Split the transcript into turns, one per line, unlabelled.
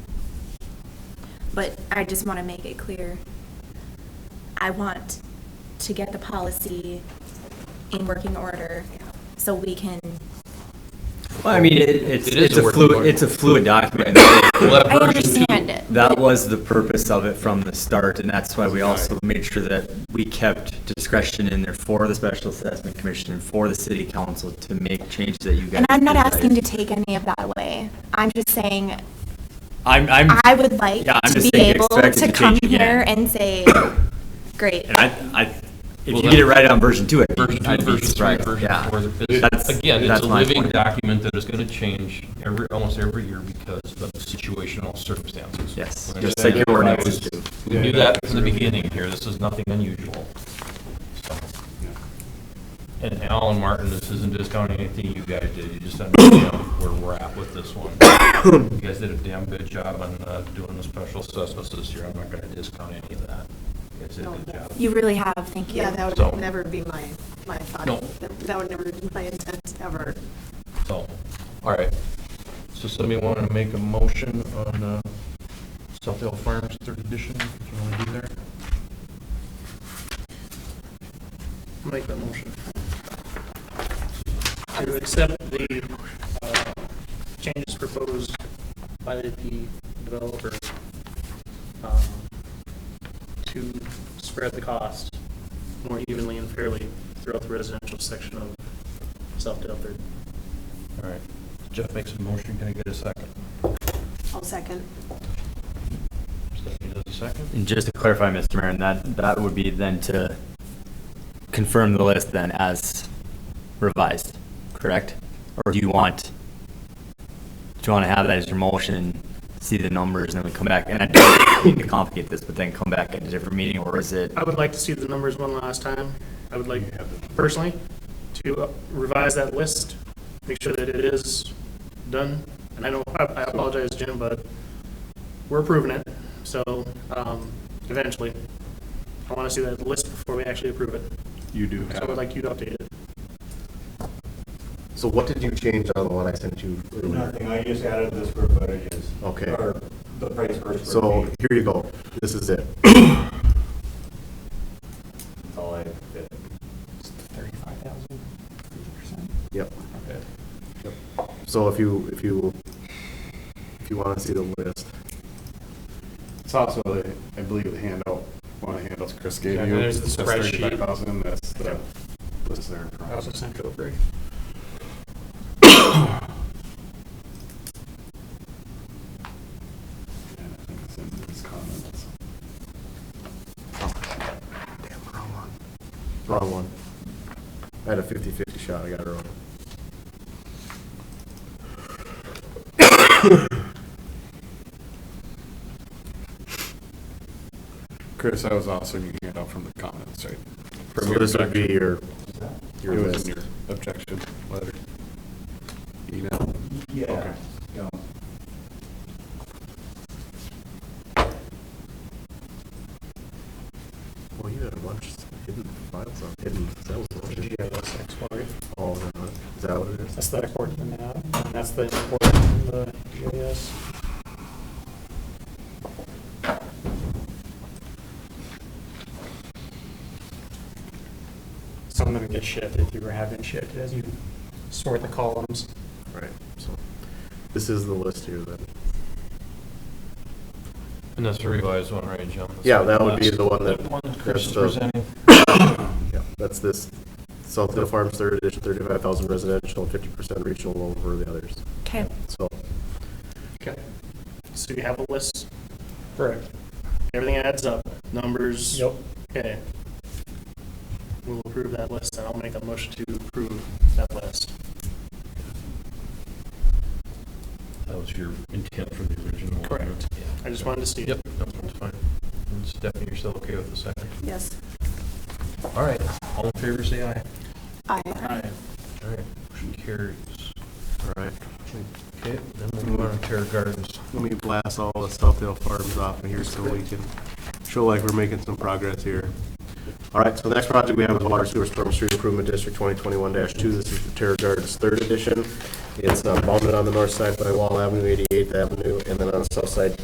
but I just want to make it clear. I want to get the policy in working order so we can,
Well, I mean, it, it's,
It is
it's
a
a
work
fluid,
order.
it's a fluid document.
We'll
I
have version two.
understand it.
That
but-
was the purpose of it from the start, and that's why we also made sure that we kept discretion in there for the Special Assessment Commission, and for the city council to make changes that you guys.
And I'm not
desired.
asking to take any of that away. I'm just saying,
I'm, I'm.
I would like
Yeah, I'm
to be
just saying
able
expect it
to
to
come
change again.
here and say, great.
And I, I, if
Well,
you get it
that-
right on version two, I'd
Version
be,
two,
I'd be
version three,
surprised,
version
yeah.
four. It's-
That's-
Again, it's
that's
a
my
living
point.
document that is going to change every, almost every year because of situational circumstances.
Yes,
We
just
understand
like your
that.
ordinances do.
We knew that from the beginning here. This is nothing unusual. So. And Alan Martin, this isn't discounting anything you guys did. You just understand where we're at with this one. You guys did a damn good job on uh, doing the special assessments this year. I'm not going to discount any of that. You guys did a good job.
You really have, thank you.
Yeah, that
So-
would never be my, my thought.
No.
That- That would never be my intent, ever.
So, all right. So somebody want to make a motion on uh, Southdale Farms third edition? What you want to do there?
Make that motion. To accept the uh, changes proposed by the developer um, to spread the cost more evenly and fairly throughout the residential section of South Delaware.
All right. Jeff makes a motion. Can I get a second?
I'll second.
Stephanie does a second.
And just to clarify, Mr. Mayor, and that, that would be then to confirm the list then as revised, correct? Or do you want, do you want to have that as your motion, see the numbers, and then we come back? And I don't mean to complicate this, but then come back at a different meeting, or is it?
I would like to see the numbers one last time. I would like personally to revise that list, make sure that it is done. And I know, I I apologize, Jim, but we're approving it, so um, eventually. I want to see that list before we actually approve it.
You do
So I would like you to update it.
So what did you change on the one I sent you earlier?
Nothing, I just added the square footages.
Okay.
Or the price per square
So
feet,
here you go, this is it.
that's all I did.
Yep.
Okay.
So if you, if you, if you want to see the list,
It's also, the- I believe, the handout, one of the handouts Chris gave
Yeah,
you.
there's the spreadsheet.
Thirty-five thousand, that's the, list there.
I also sent it over.
And I think it's in these comments.
damn, wrong one. Wrong one. I had a 50-50 shot, I got it wrong.
Chris, I was also in your handout from the comments, right? From
So
your
this would be
objection.
your, your
It was
list.
in your objection letter. Email. Okay.
Well, you had a bunch of hidden files on, hidden cells. on it. Oh, no, no. is that what it is?
That's the import and that, and that's the import and the GIS. Some of them get shifted, you have been shifted as you sort the columns.
Right, so this is the list here then.
And that's the revised one, right, Jim?
Yeah, that would be the one that-
One Chris is
that's the-
presenting.
Yeah, that's this, South Hill Farms, third edition, thirty-five thousand residential, fifty percent regional over the others,
Okay.
so.
Okay. So you have a list? Correct. Everything adds up, numbers? Yep. Okay. We'll approve that list, and I'll make a motion to approve that list.
That was your intent for the original.
Correct. I just wanted to see. it.
Yep, no, that's fine. And Stephanie, you're still okay with the second?
Yes.
All right, all in favor, say aye.
I
All right, motion carries. All right. Okay, then we'll move on to Terra Gardens.
Let me blast all the South Hill Farms off of here so we can show like we're making some progress here. All right, so the next project we have is Water Sewer Storm Street Improvement District twenty twenty-one two. This is the Terra Gardens third edition. It's uh, bounded on the north side by Wall Avenue, eighty-eighth Avenue, and then on the south side